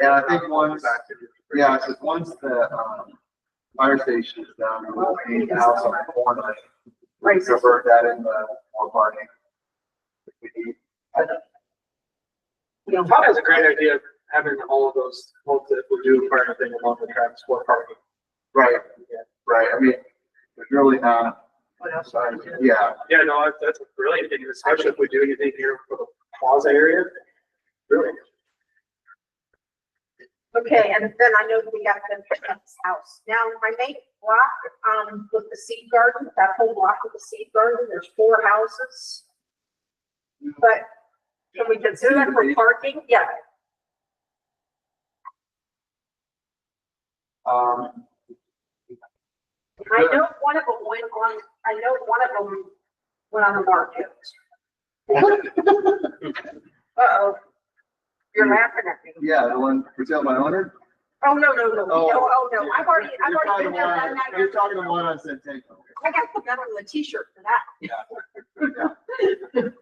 Yeah, I think once, yeah, Yeah, it's just once the, um, fire station is down, we'll need the house on the corner. Right. Convert that into more parking. If we need You know, Todd has a great idea of having all of those, hope that we do for anything along the tracks for parking. Right, right, I mean, there's really not, sorry, yeah, Yeah, no, that- that's a brilliant thing, especially if we do anything here for the plaza area. Really, Okay, and then I know we got them from this house. Now, my main block, um, with the seed garden, that whole block with the seed garden, there's four houses. But can we consider that for parking? Yeah, um. I know one of them went on, I know one of them went on the market. Uh-oh. You're laughing at me. Yeah, the one, for sale by owner? Oh, no, no, no, no, Oh. oh, no, I've already, I've You're already talking been the there, one, done that. you're talking the one on Centennial. I got the medal and the t-shirt for that.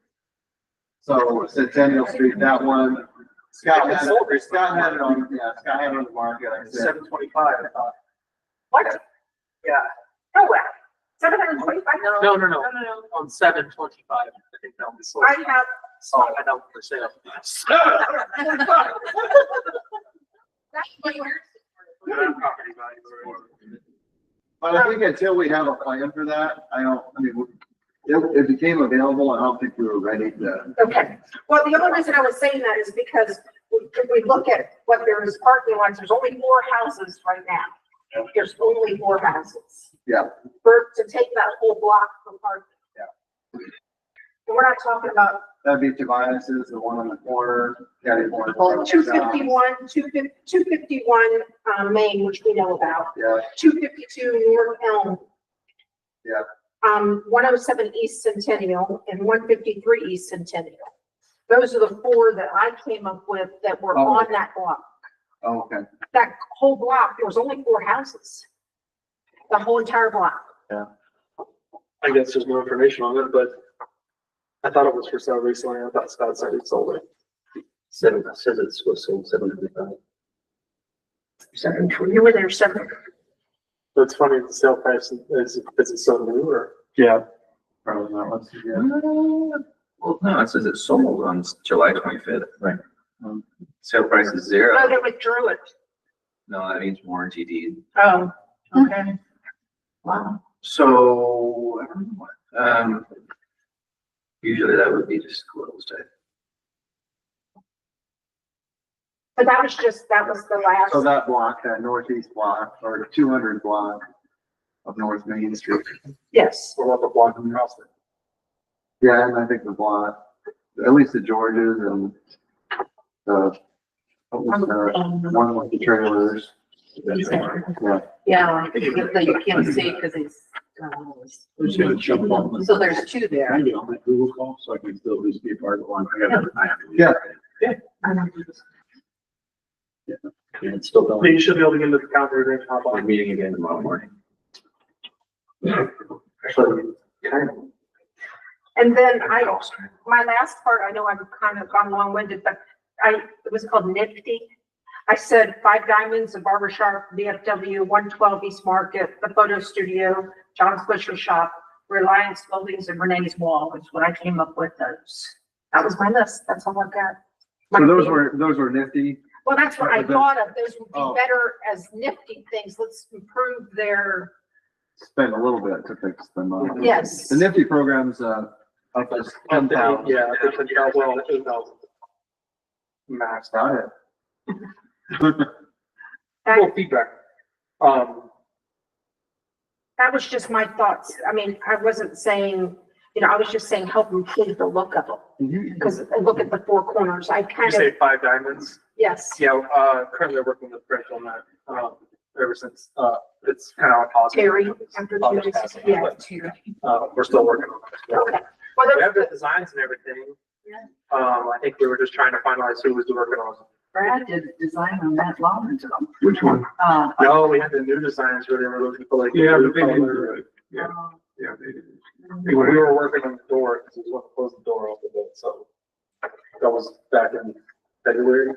So Centennial Street, that one, Scott had, Sold it- recently. Scott had it on, yeah, Scott had it on the market, I said. seven twenty-five, I thought. What? Yeah. No way. Seven hundred and twenty-five? No, no, no, No, no, no. on seven twenty-five, I think that was sold. I have, Saw it out for sale. that's what you're. Property value or- But I think until we have a plan for that, I don't, I mean, it, it became available, and I don't think we were ready to. Okay, well, the only reason I was saying that is because we- if we look at what there is parking lots, there's only four houses right now. There's only four houses. Yeah. For, to take that whole block from parking. Yeah. And we're not talking about That'd be Tobias's, the one on the corner, Patty Warren's. Oh, two uh, fifty-one, two fif, two fifty-one, um, Main, which we know about, Yeah, two fifty-two North Elm. Yeah. Um, one oh seven East Centennial and one fifty-three East Centennial. Those are the four that I came up with that were Oh. on that block. oh, okay. That whole block, there was only four houses. The whole entire block. I guess there's more information on it, but I thought it was for sale recently, I thought Scott said he sold it. Seven, says it's was sold seven twenty-five. Seven, you were there seven. But it's funny, the sale price is, is it so new or? Yeah. Probably not, let's, yeah. Well, no, it says it's sold on July twenty-fifth. Right. Sale price is Oh, zero. they withdrew it. No, that means warranty deed. Oh, okay. Wow. So, I don't know what, um, usually that would be disclosed. I- But that was just, that was the last. So that block, that northeast block, or two hundred block of North Main Street. Yes. Or what the block and house. Yeah, and I think the block, at least the Georges and the, what was the, one with the trailers. Yeah, Yeah, but you can't see because it's, um, I'm just gonna jump on this. so there's two there. Maybe on my Google call, so I can still just be a part of one. Yeah. And it's still going. You should be able to get into the counter and hop We're on. meeting again tomorrow morning. Actually, And then I, I'll start. my last part, I know I've kind of gone long-winded, but I, it was called Nifty. I said Five Diamonds, a barber shop, BFW, one twelve East Market, the photo studio, John Fisher Shop, Reliance Buildings and Renee's Wall is what I came up with those. That was my list. That's all I've got. so those were, those were nifty. Well, that's what I thought of. Those Oh. would be better as nifty things. Let's improve their, spend a little bit to fix them up. yes. The Nifty program's, uh, up as Yeah, ten thousand. I think it's about, well, eight thousand. Max. Got it. Well, feedback. Um, That was just my thoughts. I mean, I wasn't saying, you know, I was just saying help improve the look of them. Because look at the four corners, I you kind of, say five diamonds. yes, Yeah, uh, currently working with Rich on that, um, ever since, uh, it's kind of on pause. Terry, after I'll the, just pass it, yeah. but, Uh, we're still working on it. Okay. Well, We have that's the good, designs and everything. Yeah. Um, I think we were just trying to finalize who was working on. it. Brad did a design on that long ago. Which one? Uh, No, we had the new designs where they were looking for like. Yeah, blue but they didn't color. do it. Yeah. Yeah, they did. We were working on the door, because we want to close the door off a bit, so that was back in February.